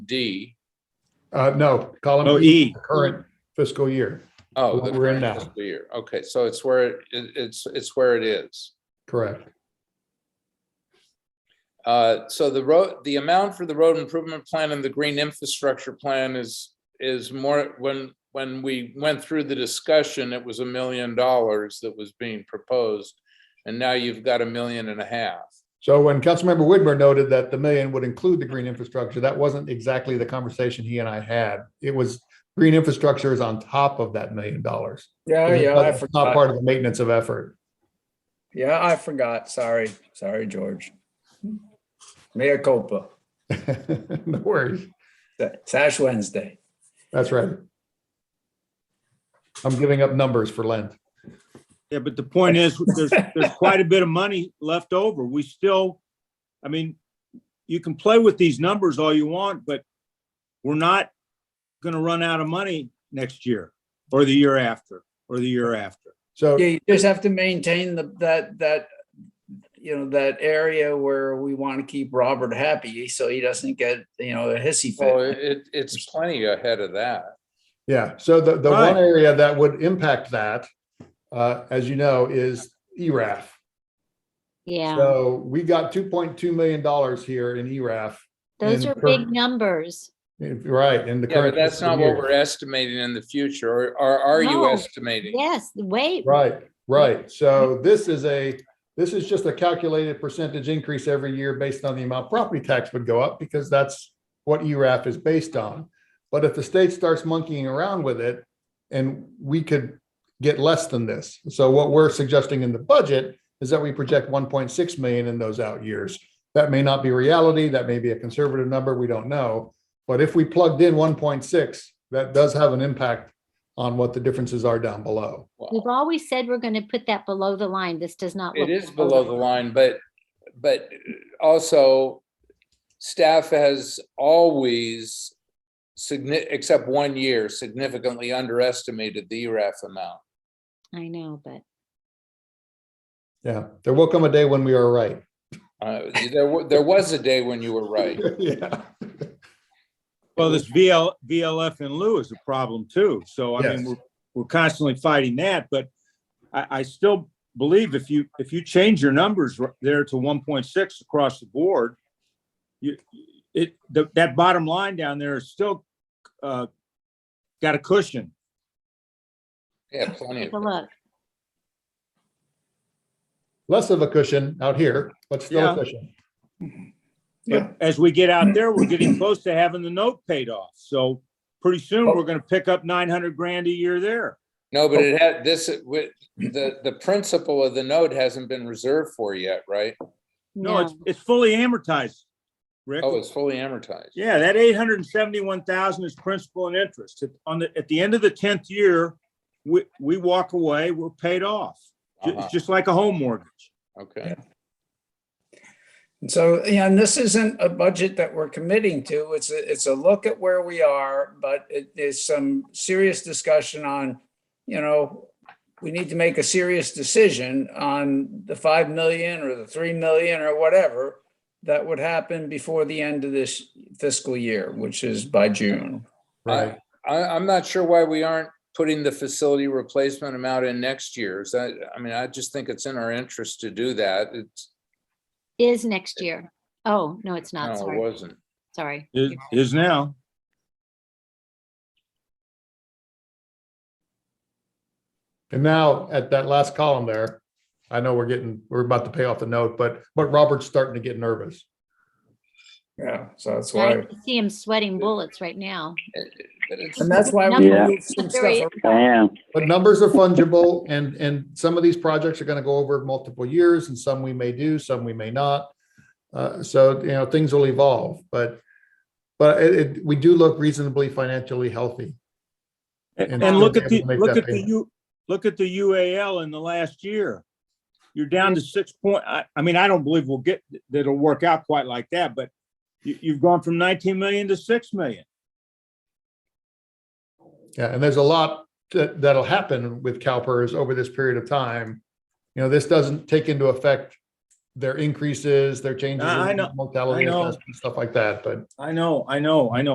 D? Uh, no, Oh, column B, E, current fiscal year, Oh, What the we're in current now. fiscal year. Okay, so it's where, it- it- it's, it's where it is. correct. Uh, So the road, the amount for the road improvement plan and the green infrastructure plan is, is more, when, when we went through the discussion, it was a million dollars that was being proposed. And now you've got a million and a half. So when Councilmember Whitmer noted that the million would include the green infrastructure, that wasn't exactly the conversation he and I had. It was green infrastructure is on top of that million dollars. Yeah, Oh, yeah, I It's Not forgot. part of the maintenance of effort. Yeah, I forgot. Sorry, sorry, George. Mayor Copa, No worries. it's Ash Wednesday. That's right. I'm giving up numbers for Lent. yeah, but the point is, there's, there's quite a bit of money left over. We still, I mean, you can play with these numbers all you want, but we're not gonna run out of money next year, or the year after, or the year after. So, Yeah, you just have to maintain the, that, that, you know, that area where we want to keep Robert happy so he doesn't get, you know, a hissy Well, fit. it, it's plenty ahead of that. yeah, so the, the Right. one area that would impact that, uh, as you know, is E ERAF. Yeah, So we got two point two million dollars here in E ERAF, those and are current- big numbers. if- right, in the Yeah, current. but that's fiscal not what year. we're estimating in the future, or, or are you No. estimating? Yes, wait, Right, right. So this is a, this is just a calculated percentage increase every year based on the amount property tax would go up because that's what E ERAF is based on. But if the state starts monkeying around with it and we could get less than this. So what we're suggesting in the budget is that we project one point six million in those out years. That may not be reality. That may be a conservative number. We don't know. But if we plugged in one point six, that does have an impact on what the differences are down below. we've always said we're going to put that below the line. This does not. It look is below the line, but, but also staff has always signi- except one year significantly underestimated the E ERAF amount. I know, but Yeah, there will come a day when we are right. Uh, There, wa- there was a day when you were right. Yeah. Well, this VL, VLF and Lou is a problem too. So I Yes. mean, we're, we're constantly fighting that, but I, I still believe if you, if you change your numbers r- there to one point six across the board, you, it, the- that bottom line down there is still, uh, got a cushion. Yeah, plenty take of. a look. Less of a cushion out here, but still a Yeah. cushion. Yeah. But as we get out there, we're getting close to having the note paid off. So pretty soon, we're gonna pick up nine hundred grand a year there. No, but it had, this, with, the, the principle of the note hasn't been reserved for yet, right? No, it's, it's fully amortized, Rick. Oh, it's fully amortized. Yeah, that eight hundred and seventy-one thousand is principal and interest. At- On the, at the end of the tenth year, we, we walk away, we're paid off. Ju- Uh-huh, It's just like a home mortgage. Okay. So, yeah, and this isn't a budget that we're committing to. It's, a it's a look at where we are, but it is some serious discussion on, you know, we need to make a serious decision on the 5 million or the 3 million or whatever that would happen before the end of this fiscal year, which is by June. Right. I, I'm not sure why we aren't putting the facility replacement amount in next year's. I, I mean, I just think it's in our interest to do that. It's, Is next year. Oh, no, it's no, not. it Sorry, wasn't. sorry. Is, is now. And now at that last column there, I know we're getting, we're about to pay off the note, but, but Robert's starting to get nervous. Yeah, so that's I why. can see him sweating bullets right now. But it's- And that's why we Yeah. moved some stuff Very- around. I am. But numbers are fungible and, and some of these projects are going to go over multiple years and some we may do, some we may not. Uh, so, you know, things will evolve, but, but it, it, we do look reasonably financially healthy. And- And and look at the, Able to make look that at the payment. U, look at the UAL in the last year. You're down to six point, I, I mean, I don't believe we'll get, that it'll work out quite like that, but you, you've gone from nineteen million to six million. Yeah, and there's a lot that, that'll happen with CalPERS over this period of time. You know, this doesn't take into effect their increases, their changes I- I know- in mortality, I know. assessment, stuff like that, but I know, I know, I know.